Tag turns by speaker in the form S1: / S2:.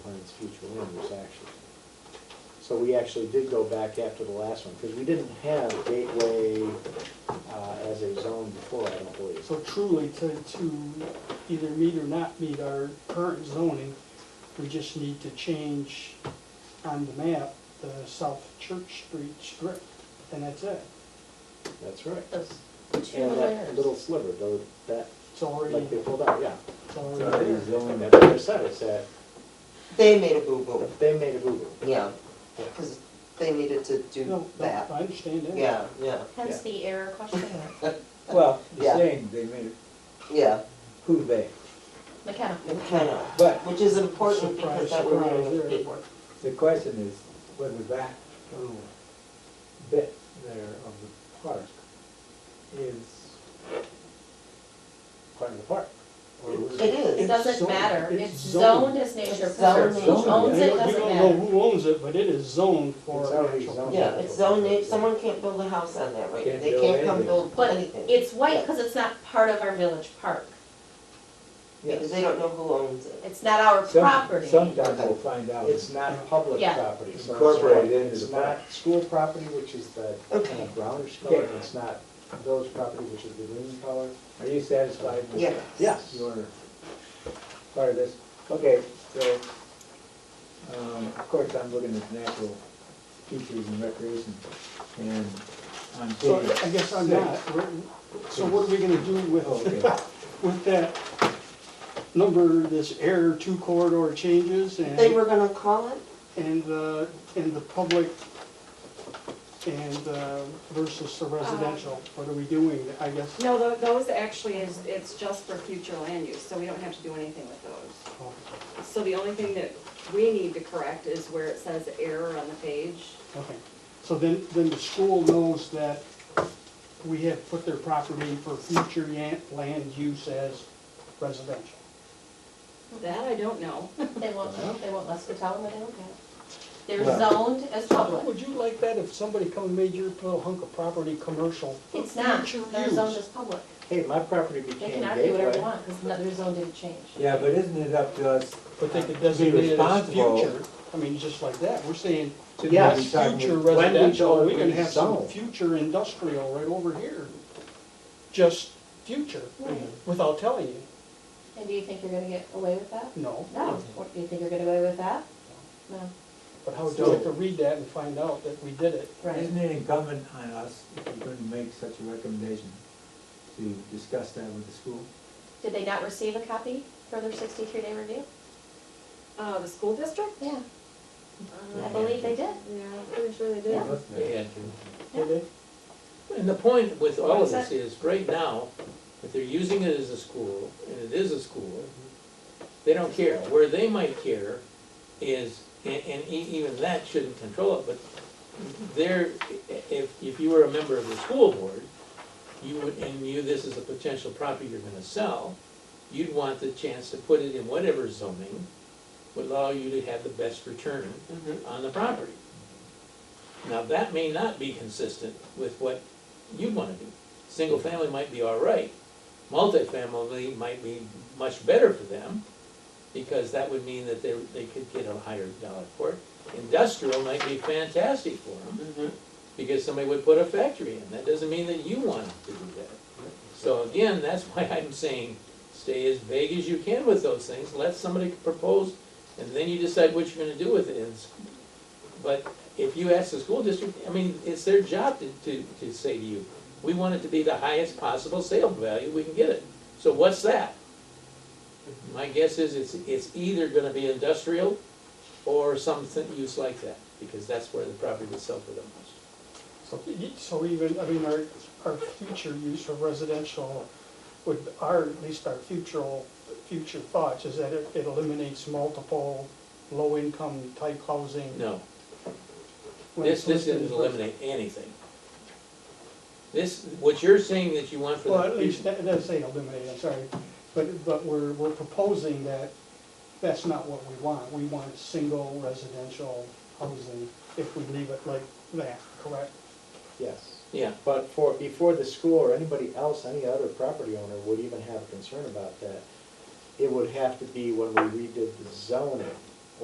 S1: its future owners, actually. So we actually did go back after the last one, because we didn't have Gateway uh, as a zone before, I don't believe.
S2: So truly, to, to either meet or not meet our current zoning, we just need to change on the map, the South Church Street strip, and that's it.
S1: That's right.
S3: Those two
S1: And that
S3: layers.
S1: little sliver, though, that,
S2: It's already,
S1: like they pulled out, yeah.
S2: it's already there.
S1: And that's what I said, it's that,
S4: They made a boo-boo,
S1: they made a boo-boo.
S4: yeah,
S1: Yeah.
S4: because they needed to do
S2: No, no, I
S4: that.
S2: understand that.
S4: Yeah, yeah,
S3: Hence the error question.
S5: Well,
S4: Yeah.
S5: the saying, they made it,
S4: yeah,
S5: who they?
S3: McKenna.
S4: McKenna,
S5: But
S4: which is important
S2: Surprise,
S4: because that we're
S2: surprise,
S4: running with
S2: there.
S4: paperwork.
S5: the question is whether that little bit there of the park is part of the park. or
S4: It is.
S3: It doesn't
S2: zoned.
S3: matter.
S2: It's
S3: It's
S2: zoned.
S3: zoned as nature
S4: It's
S3: preserve.
S4: zoned.
S3: Who owns
S2: We
S3: it,
S2: don't- We
S3: doesn't
S2: don't know
S3: matter.
S2: who owns it, but it is zoned for
S1: It's already
S2: actual-
S1: zoned.
S4: Yeah, it's zone, eight. someone can't build a house on that right now,
S5: Can't
S4: they
S5: build
S4: can't come
S5: anything.
S4: build
S3: But
S4: anything.
S3: it's white because it's not part of our village park.
S4: Because
S5: Yes.
S4: they don't know who owns it.
S3: It's not our
S5: Some-
S3: property.
S5: Sometime we'll find out.
S1: It's not public
S3: Yeah.
S1: property, so it's
S5: Incorporated
S1: not-
S5: into
S1: It's
S5: the
S1: not school property, which is the
S4: Okay.
S1: brownish
S5: Okay.
S1: color, and it's not village property, which is the green color.
S5: Are you satisfied with
S4: Yeah.
S1: Yes.
S5: your part of this? Okay, so, um, of course, I'm looking at natural features and recreation, and on
S2: So
S5: page
S2: I guess I'm
S5: six-
S2: not, We're- so what are we gonna do with,
S5: Okay,
S2: with that number, this error two corridor changes and?
S4: They were gonna call it,
S2: and the, and the public and uh, versus the residential, what are we doing, I guess?
S6: No, tho- those actually is, it's just for future land use, so we don't have to do anything with those.
S2: Oh,
S6: So the only thing that we need to correct is where it says error on the page.
S2: Okay, so then, then the school knows that we have put their property for future yan- land use as residential.
S6: That I don't know.
S3: They won't, they won't let us tell them, but they don't care. They're
S5: Well-
S3: zoned as public.
S2: Would you like that if somebody come and made your little hunk of property commercial? for
S3: It's not,
S2: future
S3: they're
S2: use?
S3: zoned as public.
S1: Hey, my property
S3: They
S1: became
S3: can argue whatever they
S1: gateway.
S3: want because their zone didn't change.
S5: yeah, but isn't it up to us?
S2: But they could
S5: Be
S2: designate it as
S5: responsible.
S2: future, I mean, just like that, we're saying,
S5: to be
S2: yes,
S5: talking
S2: future
S5: with-
S1: when we
S2: residential,
S1: go
S2: we can have some
S1: rezone.
S2: future industrial right over here. Just future,
S3: Right.
S2: without telling you,
S3: And do you think you're gonna get away with that?
S2: no.
S3: No. What, do you think you're gonna get away with that? No.
S2: But how would you like to read that and find out that we did it?
S3: Right.
S5: Isn't it incumbent on us, if we're going to make such a recommendation, to discuss that with the school?
S3: Did they not receive a copy for their sixty-three day review?
S6: Uh, the school district?
S3: Yeah, I
S6: Uh,
S3: believe they did.
S6: Yeah, I'm pretty sure they did.
S3: Yeah.
S2: Did they?
S7: And the point with all
S6: What was
S7: of this is, right now, if they're using it as a school, and it is a school, they don't care. Where they might care is, and, and e- even that shouldn't control it, but there, if, if you were a member of the school board, you would, and knew this is a potential property you're gonna sell, you'd want the chance to put it in whatever zoning would allow you to have the best return on the property. Now, that may not be consistent with what you'd wanna do. Single family might be all right, multifamily might be much better for them, because that would mean that they, they could get a higher dollar for it. Industrial might be fantastic for them, because somebody would put a factory in, that doesn't mean that you want to do that. So again, that's why I'm saying, stay as vague as you can with those things, let somebody propose, and then you decide what you're gonna do with it, and it's- but if you ask the school district, I mean, it's their job to, to, to say to you, we want it to be the highest possible sale value we can get it. So what's that? My guess is it's, it's either gonna be industrial or something use like that, because that's where the property would sell for the most.
S2: So, e- so even, I mean, our, our future use of residential would, our, at least our future, future thoughts is that it it eliminates multiple low-income type housing.
S7: No,
S2: when
S7: this,
S2: it's
S7: this
S2: listed
S7: doesn't
S2: as-
S7: eliminate anything. This, what you're saying that you want for the.
S2: Well, at least, that does say eliminate, I'm sorry, but, but we're, we're proposing that that's not what we want. We want single residential housing if we leave it like that, correct?
S1: Yes.
S7: Yeah,
S1: But for, before the school or anybody else, any other property owner would even have a concern about that, it would have to be when we redid the zoning,